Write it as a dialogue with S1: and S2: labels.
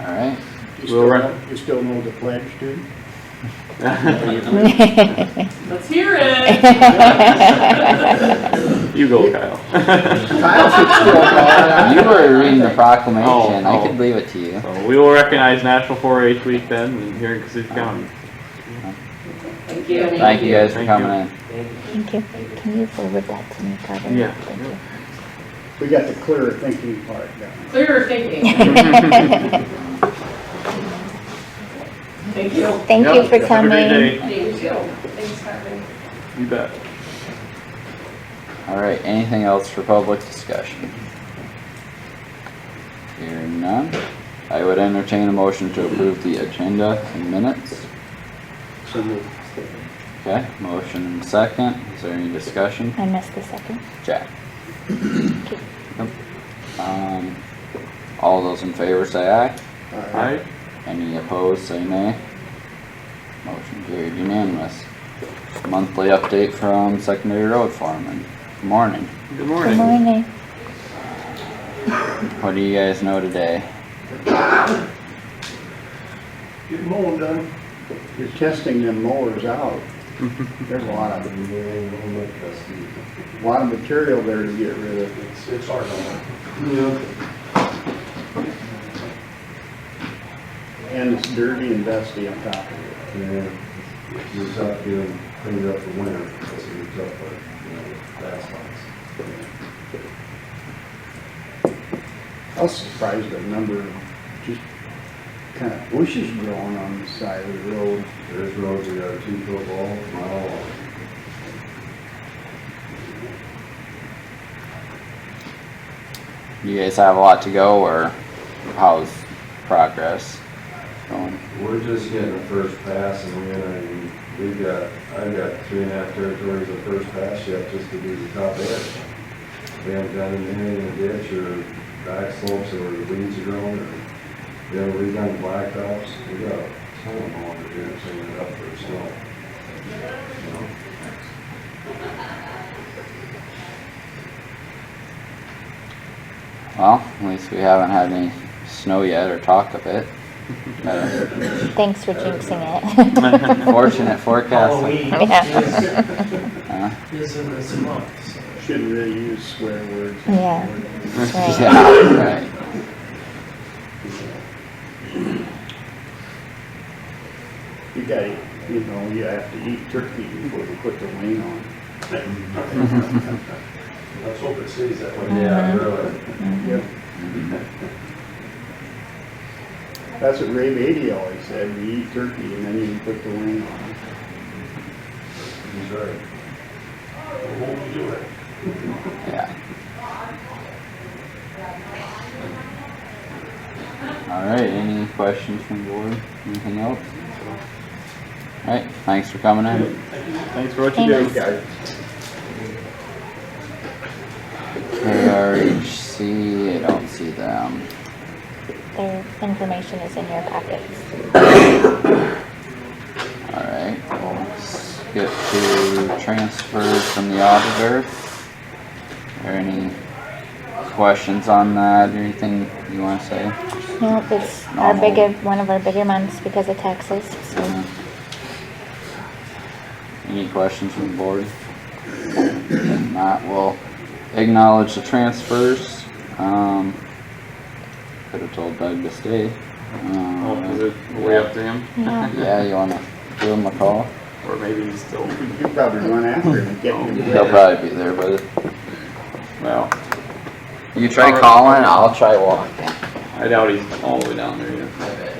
S1: All right.
S2: You
S1: We'll
S2: still,
S1: run-
S2: know- you still know the pledge, do you?
S3: Let's hear it.
S4: You go, Kyle.
S2: Kyle should still know.
S1: You were reading the proclamation.
S4: Oh,
S1: I
S4: oh.
S1: could leave it to you.
S4: so we will recognize National 4-H Week then here in Cassuth County.
S3: Thank you.
S1: Thank you guys for
S4: Thank you.
S1: coming in.
S5: Thank you. Can you forward that to me, Carter?
S4: Yeah.
S5: Thank you.
S2: We got the clear thinking part down.
S3: Clearer thinking. Thank you.
S5: Thank you
S4: Yep,
S5: for coming.
S4: Have a great day.
S3: Thank you. Thanks, Carmen.
S4: You bet.
S1: All right, anything else for public discussion? Hearing none, I would entertain a motion to approve the agenda in minutes.
S2: So moved.
S1: Okay, motion and second. Is there any discussion?
S5: I missed the second.
S1: Jack? Yep. Um, all those in favor say aye.
S2: All
S4: All
S2: right.
S4: right.
S1: Any opposed, say nay. Motion carried unanimous. Monthly update from secondary road foreman. Morning.
S4: Good
S5: Good
S4: morning.
S5: morning.
S1: What do you guys know today?
S2: Get mowing done. You're testing them mowers out. There's a lot of, a lot of material there to get rid of. It's, it's hard And it's dirty and dusty on top of it.
S6: And it's up getting cleaned up for winter, because it was up, like, you know, last
S2: I
S6: month.
S2: was surprised at the number of just kind of bushes growing on the side of the road.
S6: There's roads that are two foot long, mile long.
S1: You guys have a lot to go, or how's progress going?
S6: We're just getting the first pass, and we're gonna, we've got, I've got three and a half territories of first pass yet, just to do the top edge. We haven't done anything in the ditch, or back slopes, or weeds are growing, or, you know, we've done blacktops, we got some of them on to do, and clean it up for snow. You know?
S1: Well, at least we haven't had any snow yet or talk of it. Better.
S5: Thanks for jinxing it.
S1: Fortunate forecast.
S5: Yeah.
S7: Isn't as much, so.
S2: Should really use swear words.
S5: Yeah. Right.
S1: Yeah, right.
S2: You gotta, you know, you have to eat turkey before you put the wing on.
S6: Let's hope it stays that way. Yeah, really.
S2: Yep. That's what Ray Beatty always said, you eat turkey and then you put the wing on.
S6: He's right.
S1: Yeah. Alright, any questions from the board? Anything else? Alright, thanks for coming in.
S4: Thanks for what you do.
S5: Thanks.
S1: KRHC, I don't see them.
S5: Their information is in your packets.
S1: Alright, we'll skip to transfers from the auditor. Are any questions on that or anything you wanna say?
S5: Nope, it's our
S1: Normal.
S5: bigger, one of our bigger months because of taxes, so.
S1: Any questions from the board? If not, we'll acknowledge the transfers. Um, could have told Doug to stay.
S4: Oh, is
S1: Um,
S4: it way up to him?
S5: Yeah.
S1: yeah, you wanna give him a call?
S4: Or maybe he's still.
S2: You probably run after him and get him.
S1: He'll probably be there, but
S4: Well,
S1: you try calling, I'll try walking.
S4: I doubt he's all the way down there yet.